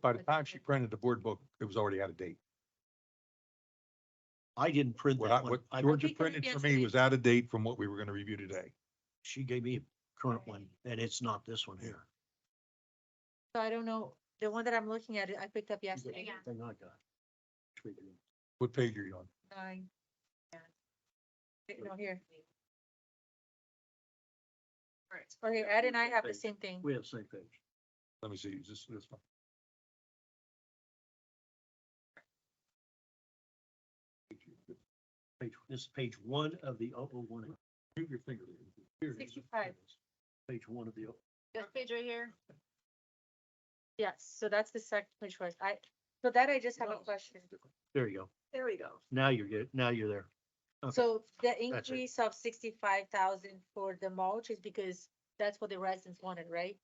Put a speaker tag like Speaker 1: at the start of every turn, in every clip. Speaker 1: By the time she printed the board book, it was already out of date.
Speaker 2: I didn't print
Speaker 1: What I,
Speaker 2: that one.
Speaker 1: what
Speaker 2: I-
Speaker 1: Georgia
Speaker 3: think I
Speaker 1: printed for
Speaker 3: guessed
Speaker 1: me
Speaker 3: it.
Speaker 1: was out of date from what we were gonna review today.
Speaker 2: She gave me a current one and it's not this one here.
Speaker 3: So I don't know, the one that I'm looking at, I picked up yesterday.
Speaker 2: Thing I got. Tweaking.
Speaker 1: What page are you on?
Speaker 3: Nine. Yeah. Wait, No, here. Right, okay, Oh, Ed and I have the same thing.
Speaker 2: We have the same page.
Speaker 1: Let me see, is this, this one?
Speaker 2: Page, this is page one of the oh oh one.
Speaker 1: Move your finger.
Speaker 2: Here it is.
Speaker 3: 65.
Speaker 2: Page one of the, oh-
Speaker 3: This page right here? Yes, so that's the second page, where I, so that I just have a
Speaker 4: Oh.
Speaker 2: No.
Speaker 3: question.
Speaker 2: there you go.
Speaker 3: There we go.
Speaker 2: Now you're good. Now you're there. Okay.
Speaker 3: So the
Speaker 2: That's it.
Speaker 3: increase of sixty-five thousand for the mulch is because that's what the residents wanted, right?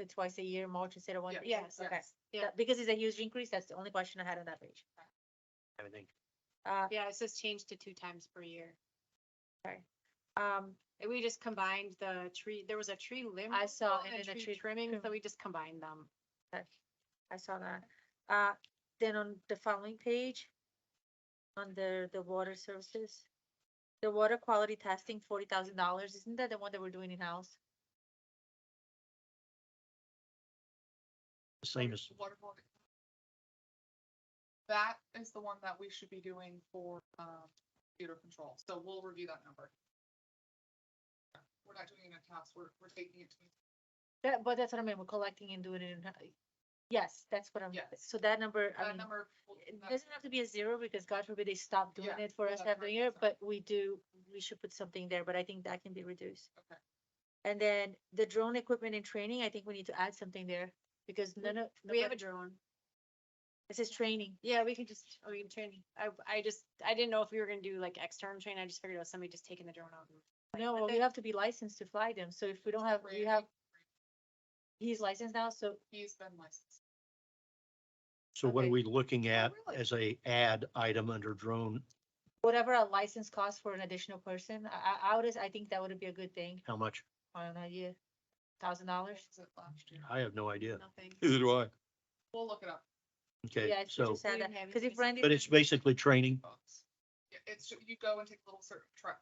Speaker 3: The twice a year mulch instead of one.
Speaker 4: Yeah.
Speaker 3: year?
Speaker 4: Yes,
Speaker 3: Okay.
Speaker 4: yes, yeah.
Speaker 3: That- Because it's a huge increase, that's the only question I had on that page.
Speaker 2: Everything.
Speaker 3: Uh,
Speaker 4: Yeah, it's just changed to two times per year.
Speaker 3: um,
Speaker 4: And We just combined the tree, there was a tree limb.
Speaker 3: I saw,
Speaker 4: removal
Speaker 3: and then a tree
Speaker 4: Trimming,
Speaker 3: trim.
Speaker 4: so we just combined them.
Speaker 3: I saw that. Uh, then on the following page, under the water services, the water quality testing, forty thousand dollars, isn't that the one that we're doing in-house?
Speaker 2: The Same as,
Speaker 5: water quality. That is the one that we should be doing for, um, computer control, so we'll review that number. We're not doing it in house, we're, we're taking it to,
Speaker 3: That, but that's what I mean, we're collecting and doing it in, yes, that's what I'm,
Speaker 5: Yes.
Speaker 3: so that number, I
Speaker 5: that
Speaker 3: mean,
Speaker 5: number. will-
Speaker 3: it
Speaker 5: that-
Speaker 3: doesn't have to be a zero because God forbid they stop doing
Speaker 5: Yeah,
Speaker 3: it for
Speaker 5: we'll
Speaker 3: us
Speaker 5: have
Speaker 3: every year,
Speaker 5: records on
Speaker 3: but
Speaker 5: it.
Speaker 3: we do, we should put something there, but I think that can be reduced.
Speaker 5: Okay.
Speaker 3: And then the drone equipment and training, I think we need to add something there because none of,
Speaker 4: We have a
Speaker 3: nobody-
Speaker 4: drone.
Speaker 3: this is training.
Speaker 4: Yeah, we can just, we can train. I, I just, I didn't know if we were gonna do like external training. I just figured it was somebody just taking the drone out. and-
Speaker 3: No, well, you have to be licensed to fly them, so if we don't have, we
Speaker 5: Brady,
Speaker 3: have, he's licensed now, so
Speaker 5: He's been licensed.
Speaker 2: so what are
Speaker 3: Okay. Oh,
Speaker 2: we looking at
Speaker 5: really?
Speaker 2: as a ad item under drone?
Speaker 3: whatever a license costs for an additional person, I, I, I would, I think that would be a good thing,
Speaker 2: How much?
Speaker 3: I don't know, yeah, thousand dollars.
Speaker 5: What was it last year?
Speaker 2: I have no idea.
Speaker 4: Nothing.
Speaker 1: Neither do I.
Speaker 5: We'll look it up.
Speaker 3: Yeah,
Speaker 2: Okay,
Speaker 3: it's
Speaker 2: so,
Speaker 3: just sad
Speaker 4: We
Speaker 3: that,
Speaker 4: didn't have
Speaker 3: because if
Speaker 4: anything.
Speaker 3: Randy.
Speaker 2: but it's basically training.
Speaker 5: Books. Yeah, It's, ju- you go and take a little cert, tra-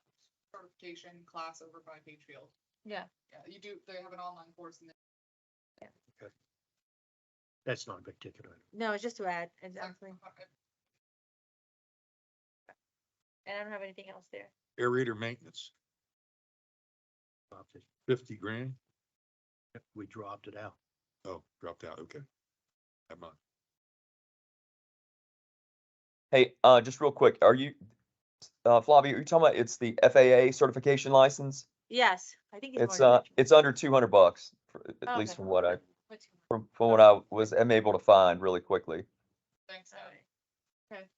Speaker 5: certification class over by Pagefield.
Speaker 3: Yeah.
Speaker 5: Yeah, you do, they have an online course and
Speaker 2: That's not a big ticket item.
Speaker 3: No, it's just to add,
Speaker 5: then.
Speaker 3: exactly,
Speaker 5: uh,
Speaker 3: and I don't have anything else there.
Speaker 1: Aerator maintenance,
Speaker 2: Dropped it.
Speaker 1: fifty grand.
Speaker 2: We dropped it out.
Speaker 1: Oh, dropped out, okay. Never mind.
Speaker 6: Hey, uh, just real quick, are you, uh, Flavia, are you talking about it's the FAA certification license?
Speaker 3: Yes, I think.
Speaker 6: It's,
Speaker 3: more
Speaker 6: uh,
Speaker 3: than that.
Speaker 6: it's under two hundred bucks, for-
Speaker 3: Okay.
Speaker 6: at least from what I,
Speaker 4: What's your-
Speaker 6: from, from what I was, am able to find really quickly.
Speaker 5: Thanks, uh, Ed.
Speaker 3: Alright. Okay,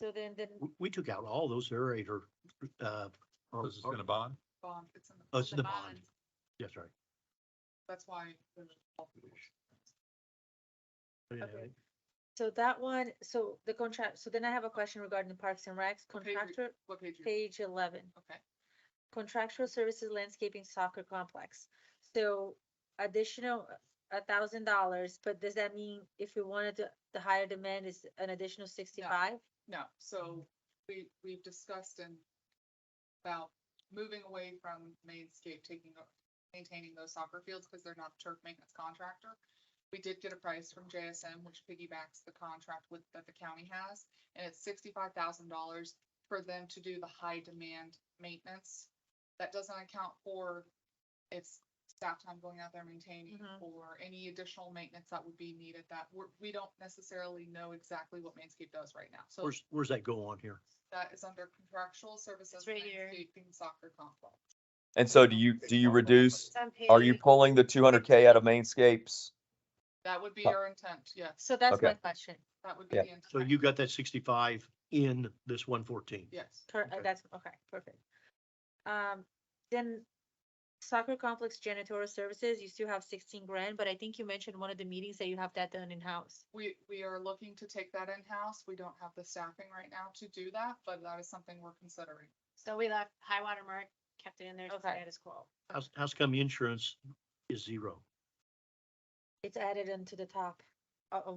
Speaker 3: so then, then,
Speaker 2: We, we took out all those aerator, uh. or-
Speaker 1: This is in a bond?
Speaker 5: Bond, it's in the.
Speaker 2: Oh, it's in
Speaker 4: the
Speaker 2: the bond.
Speaker 4: bond.
Speaker 2: That's right.
Speaker 5: That's why. there's all the-
Speaker 2: I didn't
Speaker 3: Okay.
Speaker 2: have it.
Speaker 3: so that one, so the contract, so then I have a question regarding the Parks and Recs
Speaker 5: What page are you-
Speaker 3: contractor,
Speaker 5: What page? are you-
Speaker 3: page eleven.
Speaker 5: Okay.
Speaker 3: Contractual services landscaping soccer complex. So additional a thousand dollars, but does that mean if we wanted to, the higher demand is an additional sixty-five?
Speaker 5: No, so we, we've discussed and about moving away from mainscape, taking, o- maintaining those soccer fields because they're not a turf maintenance contractor. We did get a price from JSM, which piggybacks the contract with, that the county has, and it's sixty-five thousand dollars for them to do the high demand maintenance. That doesn't account for if staff time going out there maintaining
Speaker 3: Mhm.
Speaker 5: or any additional maintenance that would be needed that we're, we don't necessarily know exactly what Mainscape does right now. So
Speaker 2: Where's, where's that go on here?
Speaker 5: that is under contractual services.
Speaker 4: It's right here.
Speaker 5: landscaping Soccer complex.
Speaker 6: And so do you, do you reduce,
Speaker 4: It's on
Speaker 6: are you
Speaker 4: page-
Speaker 6: pulling the two hundred K out of Mainscapes?
Speaker 5: That would be
Speaker 6: Huh.
Speaker 5: our intent, yes.
Speaker 3: So that's
Speaker 6: Okay.
Speaker 3: my question.
Speaker 5: That would be
Speaker 6: Yeah.
Speaker 5: the intent.
Speaker 2: So you got that sixty-five in this one fourteen?
Speaker 5: Yes.
Speaker 3: Cor- uh,
Speaker 2: Okay.
Speaker 3: That's, okay, perfect. Um, then soccer complex janitorial services, you still have sixteen grand, but I think you mentioned one of the meetings that you have that done in-house.
Speaker 5: We, we are looking to take that in-house. We don't have the staffing right now to do that, but that is something we're considering.
Speaker 4: So we left high water mark, kept it in there. so
Speaker 3: Okay.
Speaker 4: That is cool.
Speaker 2: How's, how's come insurance is zero?
Speaker 3: It's added into the top. uh,